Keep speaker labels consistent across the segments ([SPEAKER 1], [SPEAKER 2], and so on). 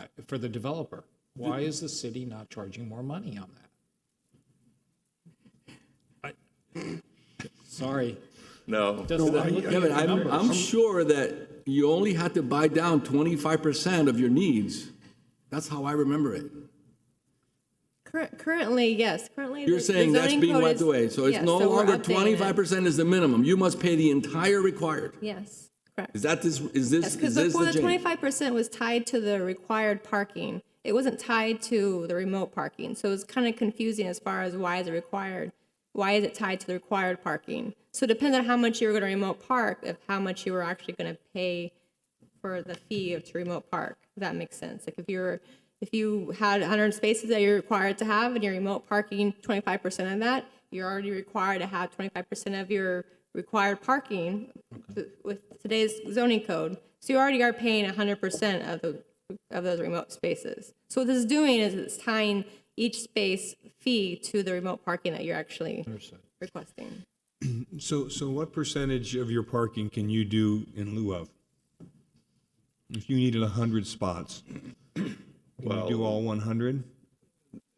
[SPEAKER 1] I- for the developer. Why is the city not charging more money on that? Sorry.
[SPEAKER 2] No.
[SPEAKER 1] Dustin, I'm looking at
[SPEAKER 3] Kevin,
[SPEAKER 1] the
[SPEAKER 3] I'm,
[SPEAKER 1] numbers.
[SPEAKER 3] I'm sure that you only had to buy down twenty-five percent of your needs. That's how I remember it.
[SPEAKER 4] Cur- Currently, yes, currently.
[SPEAKER 3] You're
[SPEAKER 4] the- the
[SPEAKER 3] saying that's
[SPEAKER 4] zoning
[SPEAKER 3] being
[SPEAKER 4] code
[SPEAKER 3] wiped
[SPEAKER 4] is-
[SPEAKER 3] away, so it's
[SPEAKER 4] yes,
[SPEAKER 3] no
[SPEAKER 4] we're
[SPEAKER 3] longer
[SPEAKER 4] updating it.
[SPEAKER 3] twenty-five percent is the minimum. You must pay the entire required.
[SPEAKER 4] Yes, correct.
[SPEAKER 3] Is that this, is this,
[SPEAKER 4] Yes,
[SPEAKER 3] is
[SPEAKER 4] because
[SPEAKER 3] this
[SPEAKER 4] before
[SPEAKER 3] the
[SPEAKER 4] the
[SPEAKER 3] change?
[SPEAKER 4] twenty-five percent was tied to the required parking. It wasn't tied to the remote parking, so it's kind of confusing as far as why is it required? Why is it tied to the required parking? So it depends on how much you were going to remote park, of how much you were actually going to pay for the fee of to remote park. If that makes sense. Like if you're, if you had hundred spaces that you're required to have and you're remote parking twenty-five percent of that, you're already required to have twenty-five percent of your required parking with today's zoning code. So you already are paying hundred percent of the, of those remote spaces. So what this is doing is it's tying each space fee to the remote parking that you're actually requesting.
[SPEAKER 5] So, so what percentage of your parking can you do in lieu of? If you needed 100 spots, can you do all 100?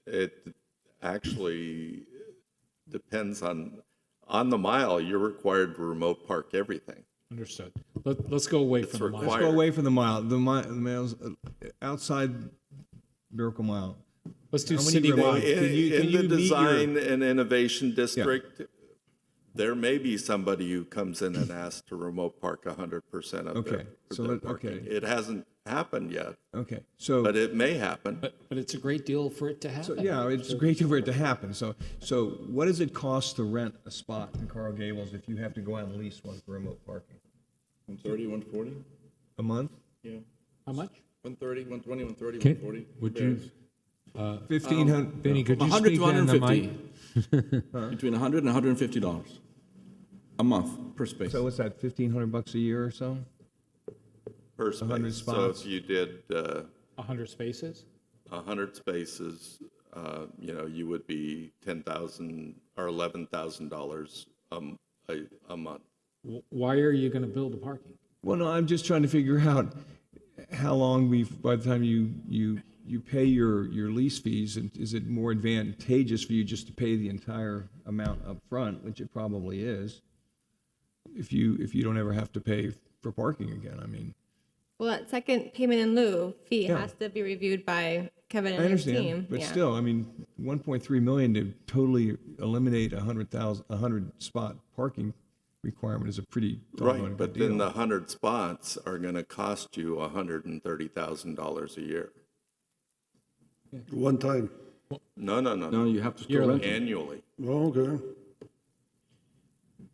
[SPEAKER 2] It actually depends on, on the mile, you're required to remote park everything.
[SPEAKER 1] Understood. Let, let's go away from the
[SPEAKER 2] required.
[SPEAKER 1] miles.
[SPEAKER 5] Let's go away from the mile, the mi- the miles, uh, outside Miracle Mile.
[SPEAKER 1] Let's do
[SPEAKER 5] How many
[SPEAKER 1] citywide.
[SPEAKER 5] remote-
[SPEAKER 2] In,
[SPEAKER 5] Can you- can
[SPEAKER 2] in the
[SPEAKER 5] you meet your-
[SPEAKER 2] design and innovation district, there may be somebody who comes in and asks to remote park hundred percent of their,
[SPEAKER 5] Okay, so
[SPEAKER 2] their
[SPEAKER 5] let- okay.
[SPEAKER 2] parking. It hasn't happened yet,
[SPEAKER 5] Okay, so.
[SPEAKER 2] but it may happen.
[SPEAKER 1] But, but it's a great deal for it to
[SPEAKER 5] So,
[SPEAKER 1] happen.
[SPEAKER 5] yeah, it's great for it to happen. So, so what does it cost to rent a spot in Coral Gables if you have to go out and lease one for remote parking?
[SPEAKER 6] One thirty, one forty?
[SPEAKER 5] A month?
[SPEAKER 3] Um,
[SPEAKER 6] Yeah.
[SPEAKER 1] How much?
[SPEAKER 6] One thirty, one twenty, one thirty, one forty?
[SPEAKER 7] Can, would you,
[SPEAKER 5] Fifteen hundred?
[SPEAKER 7] Benny, could you
[SPEAKER 3] hundred
[SPEAKER 7] speak
[SPEAKER 3] to
[SPEAKER 7] down
[SPEAKER 3] hundred
[SPEAKER 7] in
[SPEAKER 3] and
[SPEAKER 7] the mic?
[SPEAKER 3] fifty. Between hundred and hundred and fifty dollars a month per space.
[SPEAKER 5] So what's that, fifteen hundred bucks a year or so?
[SPEAKER 2] per
[SPEAKER 5] 100
[SPEAKER 2] space. So if
[SPEAKER 5] spots.
[SPEAKER 2] you did uh,
[SPEAKER 1] 100 spaces?
[SPEAKER 2] 100 spaces, uh, you know, you would be 10,000 or $11,000 um, a a month.
[SPEAKER 1] W- Why are you going to build the parking?
[SPEAKER 5] Well, no, I'm just trying to figure out how long we, by the time you, you, you pay your, your lease fees, and is it more advantageous for you just to pay the entire amount up front, which it probably is, if you, if you don't ever have to pay for parking again, I mean.
[SPEAKER 4] Well, that second payment in lieu fee
[SPEAKER 5] Yeah.
[SPEAKER 4] has to be reviewed by Kevin
[SPEAKER 5] I
[SPEAKER 4] and his team.
[SPEAKER 5] understand, but
[SPEAKER 4] Yeah.
[SPEAKER 5] still, I mean, one point three million to totally eliminate a hundred thousand, a hundred spot parking requirement is a pretty doggone
[SPEAKER 2] Right,
[SPEAKER 5] good
[SPEAKER 2] but then
[SPEAKER 5] deal.
[SPEAKER 2] the 100 spots are going to cost you $130,000 a year.
[SPEAKER 8] One time.
[SPEAKER 2] No, no, no,
[SPEAKER 3] No,
[SPEAKER 2] no,
[SPEAKER 3] you have to still rent it.
[SPEAKER 2] annually.
[SPEAKER 8] Oh, okay.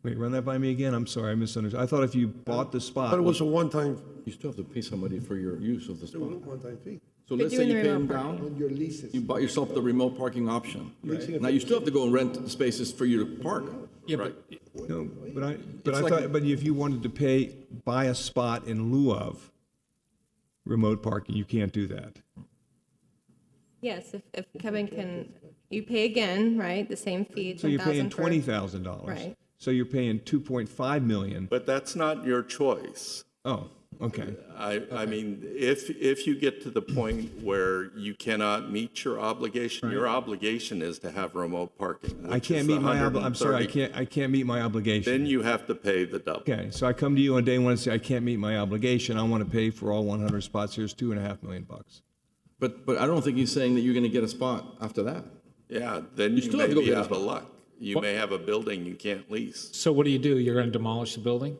[SPEAKER 5] Wait, run that by me again, I'm sorry, I misunderstood, I thought if you bought the spot.
[SPEAKER 8] But it was a one-time,
[SPEAKER 6] You still have to pay somebody for your use of the spot.
[SPEAKER 8] one-time fee.
[SPEAKER 3] So let's
[SPEAKER 4] doing
[SPEAKER 3] say you
[SPEAKER 4] the
[SPEAKER 3] pay them
[SPEAKER 4] remote
[SPEAKER 3] down,
[SPEAKER 8] Your leases.
[SPEAKER 3] you bought yourself the remote parking option. Now, you still have to go and rent spaces for you to park.
[SPEAKER 1] Yeah, but
[SPEAKER 5] No, but I, but
[SPEAKER 3] It's
[SPEAKER 5] I
[SPEAKER 3] like-
[SPEAKER 5] thought, but if you wanted to pay, buy a spot in lieu of remote parking, you can't do that.
[SPEAKER 4] Yes, if, if Kevin can, you pay again, right, the same fee,
[SPEAKER 5] So you're
[SPEAKER 4] 10,000
[SPEAKER 5] paying
[SPEAKER 4] for.
[SPEAKER 5] twenty thousand dollars.
[SPEAKER 4] Right.
[SPEAKER 5] So you're paying two point five million.
[SPEAKER 2] But that's not your choice.
[SPEAKER 5] Oh, okay.
[SPEAKER 2] I, I mean, if, if you get to the point where you cannot meet your obligation, your obligation is to have remote parking,
[SPEAKER 5] I
[SPEAKER 2] which is
[SPEAKER 5] can't
[SPEAKER 2] the
[SPEAKER 5] meet my obli, I'm sorry, I
[SPEAKER 2] 130.
[SPEAKER 5] can't, I can't meet my obligation.
[SPEAKER 2] Then you have to pay the double.
[SPEAKER 5] Okay, so I come to you on day one and say, I can't meet my obligation, I want to pay for all one hundred spots, here's two and a half million bucks.
[SPEAKER 3] But, but I don't think he's saying that you're gonna get a spot after that.
[SPEAKER 2] Yeah, then you
[SPEAKER 3] still
[SPEAKER 2] may
[SPEAKER 3] have to go
[SPEAKER 2] be
[SPEAKER 3] get a
[SPEAKER 2] out of
[SPEAKER 3] spot.
[SPEAKER 2] luck. You may have a building you can't lease.
[SPEAKER 1] so what do you do? You're going to demolish the building?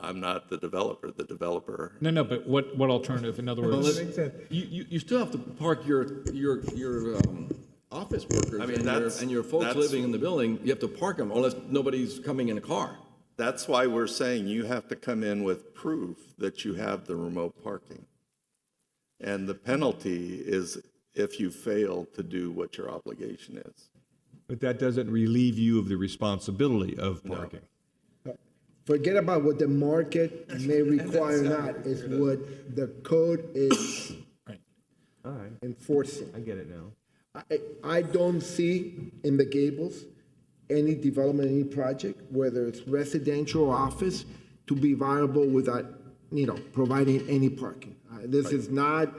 [SPEAKER 2] I'm not the developer, the developer.
[SPEAKER 1] No, no, but what, what alternative? In other words,
[SPEAKER 3] You, you, you still have to park your, your, your, um, office workers
[SPEAKER 2] I mean,
[SPEAKER 3] and your,
[SPEAKER 2] that's-
[SPEAKER 3] and your folks
[SPEAKER 2] that's-
[SPEAKER 3] living in the building, you have to park them unless nobody's coming in a car.
[SPEAKER 2] That's why we're saying you have to come in with proof that you have the remote parking. And the penalty is if you fail to do what your obligation is.
[SPEAKER 5] But that doesn't relieve you of the responsibility of parking.
[SPEAKER 9] Forget about what the market may require or not, it's what the code is
[SPEAKER 1] Right.
[SPEAKER 9] enforcing.
[SPEAKER 5] I get it now.
[SPEAKER 9] I, I don't see in the Gables any development, any project, whether it's residential or office, to be viable without you know, providing any parking. Uh, This is not